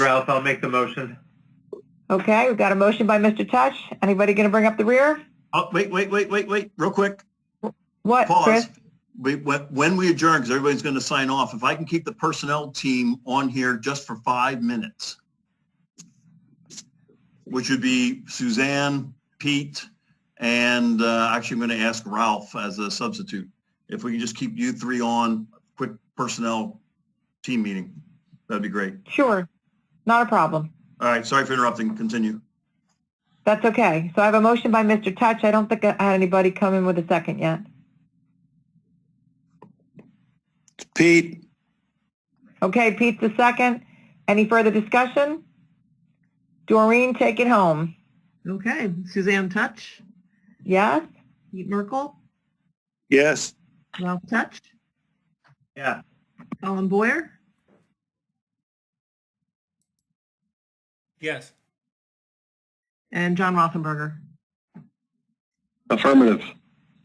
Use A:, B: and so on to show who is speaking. A: else, I'll make the motion.
B: Okay, we've got a motion by Mr. Touch. Anybody going to bring up the rear?
C: Oh, wait, wait, wait, wait, wait, real quick,
B: What, Chris?
C: pause. We, when when we adjourn, because everybody's going to sign off, if I can keep the personnel team on here just for five minutes, which would be Suzanne, Pete, and uh, actually I'm going to ask Ralph as a substitute. If we can just keep you three on, quick personnel team meeting, that'd be great.
B: Sure, not a problem.
C: All right, sorry for interrupting, continue.
B: That's okay. So I have a motion by Mr. Touch. I don't think I had anybody come in with a second yet.
C: Pete?
B: Okay, Pete's the second. Any further discussion? Doreen, take it home.
D: Okay, Suzanne Touch,
B: Yes?
D: Pete Merkel,
C: Yes.
D: Ralph Touch,
A: Yeah.
D: Colin Boyer,
E: Yes.
D: and John Rothenberger.
F: Affirmative.